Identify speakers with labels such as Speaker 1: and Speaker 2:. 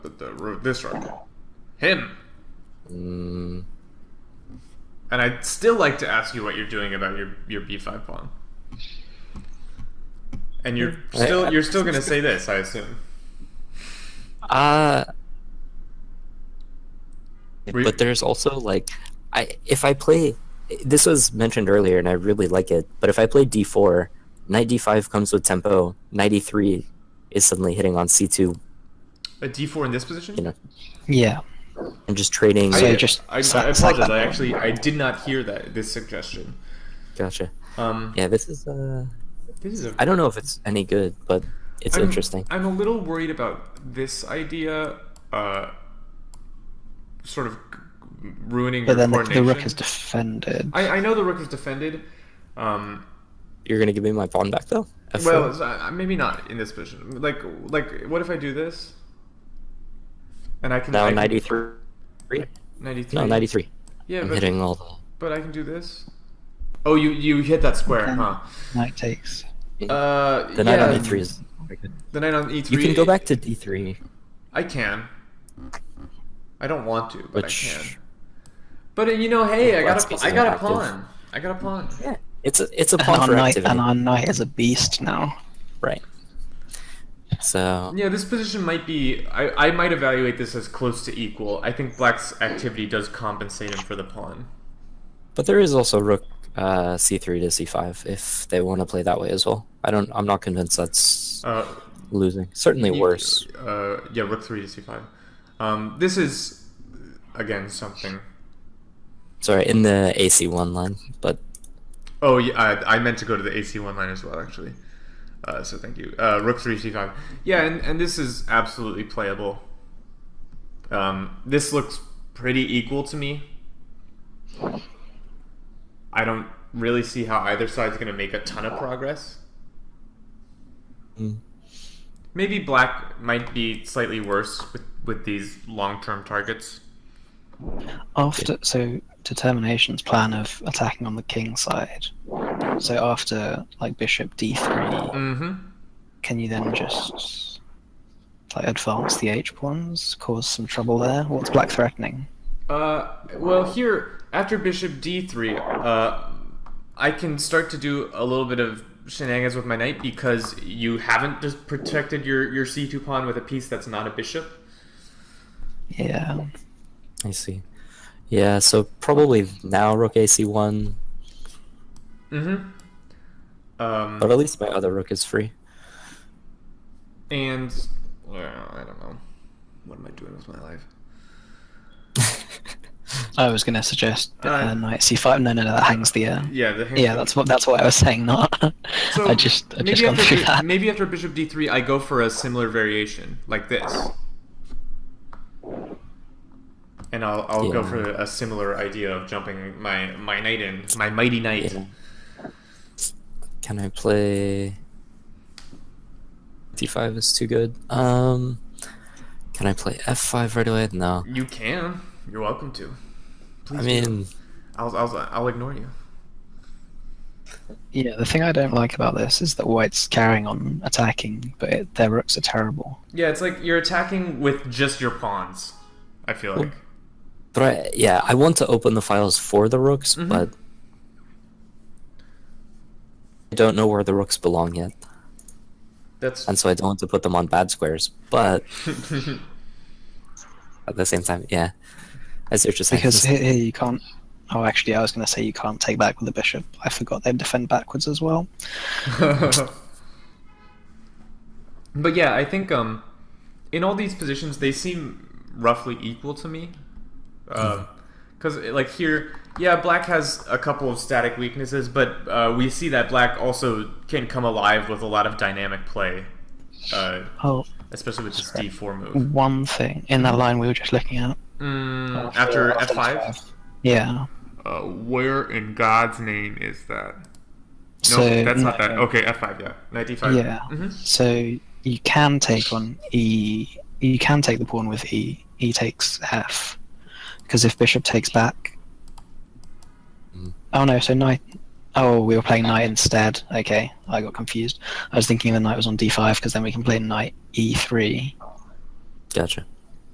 Speaker 1: the, the this record. Him.
Speaker 2: Mm,
Speaker 1: And I'd still like to ask you what you're doing about your your b5 pawn. And you're
Speaker 2: I-
Speaker 1: still
Speaker 2: I-
Speaker 1: you're still gonna say this, I assume.
Speaker 2: uh,
Speaker 1: Re-
Speaker 2: but there's also like, I if I play, this was mentioned earlier, and I really like it. But if I play d4, knight d5 comes with tempo. Knight e3 is suddenly hitting on c2
Speaker 1: A d4 in this position?
Speaker 2: You know,
Speaker 3: Yeah.
Speaker 2: and just trading.
Speaker 3: So
Speaker 1: I,
Speaker 3: you just
Speaker 1: I, I
Speaker 3: suck-
Speaker 1: apologize.
Speaker 3: suck that
Speaker 1: I actually I did not hear that this suggestion.
Speaker 2: Gotcha.
Speaker 1: Um,
Speaker 2: Yeah, this is. Uh,
Speaker 1: this is a
Speaker 2: I don't know if it's any good, but it's
Speaker 1: I'm-
Speaker 2: interesting.
Speaker 1: I'm a little worried about this idea, uh, sort of ruining your
Speaker 3: But then the, the
Speaker 1: coordination.
Speaker 3: rook is defended.
Speaker 1: I, I know the rook is defended. Um,
Speaker 2: You're gonna give me my pawn back though. F4?
Speaker 1: well, it's, uh, maybe not in this position. Like, like, what if I do this? And I can I
Speaker 2: now
Speaker 1: can-
Speaker 2: ninety E three.
Speaker 1: Ninety-three.
Speaker 2: No, ninety three.
Speaker 1: Yeah,
Speaker 2: I'm
Speaker 1: but,
Speaker 2: hitting all the.
Speaker 1: but I can do this. Oh, you you hit that square,
Speaker 3: Okay.
Speaker 1: huh?
Speaker 3: Knight takes.
Speaker 1: Uh,
Speaker 2: The
Speaker 1: yeah,
Speaker 2: knight on e3 is.
Speaker 1: The knight on e3.
Speaker 2: You can go back to d3,
Speaker 1: I can. I don't want to, but
Speaker 2: which
Speaker 1: I can. But uh, you know, hey, I
Speaker 2: Let's
Speaker 1: got
Speaker 2: be
Speaker 1: a, I got a
Speaker 2: active.
Speaker 1: pawn. I got a pawn.
Speaker 2: yeah, it's a it's a
Speaker 3: And
Speaker 2: pawn
Speaker 3: our
Speaker 2: for
Speaker 3: knight
Speaker 2: activity,
Speaker 3: and our knight is a beast now.
Speaker 2: right? So
Speaker 1: Yeah, this position might be. I, I might evaluate this as close to equal. I think Black's activity does compensate him for the pawn.
Speaker 2: But there is also rook uh, c3 to c5 if they want to play that way as well. I don't. I'm not convinced that's
Speaker 1: Uh,
Speaker 2: losing. Certainly
Speaker 1: you-
Speaker 2: worse.
Speaker 1: Uh, yeah, rook three to c5. Um, this is again something.
Speaker 2: Sorry, in the AC1 line, but
Speaker 1: Oh yeah, I, I meant to go to the AC one line as well actually. Uh, so thank you. Uh, rook three c5. Yeah, and, and this is absolutely playable. Um, this looks pretty equal to me. I don't really see how either side's going to make a ton of progress.
Speaker 2: mm,
Speaker 1: Maybe black might be slightly worse with, with these long term targets.
Speaker 3: After so determination's plan of attacking on the king side. So after like bishop d3,
Speaker 1: Mm hmm.
Speaker 3: can you then just like advance the h pawns, cause some trouble there? What's black threatening?
Speaker 1: Uh, well, here after Bishop D3, uh, I can start to do a little bit of shenanigans with my knight because you haven't just protected your your C2 pawn with a piece that's not a bishop.
Speaker 3: Yeah.
Speaker 2: I see. Yeah, so probably now rook AC1,
Speaker 1: Mm-hmm.
Speaker 2: but
Speaker 1: Um,
Speaker 2: at least my other rook is free.
Speaker 1: and well, I don't know. What am I doing with my life?
Speaker 3: I was gonna suggest uh,
Speaker 1: Alright.
Speaker 3: knight c5. No, no, no, that hangs the air.
Speaker 1: Yeah, the hand-
Speaker 3: Yeah, that's what that's what I was saying. Not.
Speaker 1: So
Speaker 3: I just I
Speaker 1: maybe
Speaker 3: just gone
Speaker 1: after
Speaker 3: through
Speaker 1: bi-
Speaker 3: that.
Speaker 1: maybe after Bishop D3, I go for a similar variation like this, and I'll I'll go
Speaker 2: Yeah.
Speaker 1: for a similar idea of jumping my my knight in my mighty knight.
Speaker 2: Yeah. Can I play d5 is too good. Um can I play f5 right away? No.
Speaker 1: You can. You're welcome to. Please.
Speaker 2: I
Speaker 1: do.
Speaker 2: mean,
Speaker 1: I'll I'll I'll ignore you.
Speaker 3: Yeah, the thing I don't like about this is that white's carrying on attacking, but it, their rooks are terrible.
Speaker 1: Yeah, it's like you're attacking with just your pawns. I feel like.
Speaker 2: but I, yeah, I want to open the files for the rooks,
Speaker 1: Mhm.
Speaker 2: but I don't know where the rooks belong yet,
Speaker 1: That's
Speaker 2: and so I don't want to put them on bad squares. But at the same time, yeah, I see what you're saying.
Speaker 3: Because
Speaker 2: This-
Speaker 3: here, here you can't. Oh, actually, I was going to say you can't take back with the bishop. I forgot they defend backwards as well.
Speaker 1: but yeah, I think um, in all these positions they seem roughly equal to me. Mm. Because like here, yeah, black has a couple of static weaknesses, but uh, we see that black also can come alive with a lot of dynamic play, uh,
Speaker 3: Oh,
Speaker 1: especially with this
Speaker 3: Sorry.
Speaker 1: d4 move.
Speaker 3: one thing in that line we were just looking at. Oh,
Speaker 1: Mm, after f5,
Speaker 3: Yeah.
Speaker 1: uh, where in God's name is that? No,
Speaker 3: so
Speaker 1: that's not that.
Speaker 3: no,
Speaker 1: Okay, f5, yeah, knight d5.
Speaker 3: Yeah.
Speaker 1: Mhm.
Speaker 3: So you can take on e. You can take the pawn with e. E takes f. Because if bishop takes back.
Speaker 2: Mm.
Speaker 3: Oh no! So knight. Oh, we were playing knight instead. Okay, I got e confused. I was thinking the knight was on d5 because then we can play knight e3.
Speaker 2: Gotcha.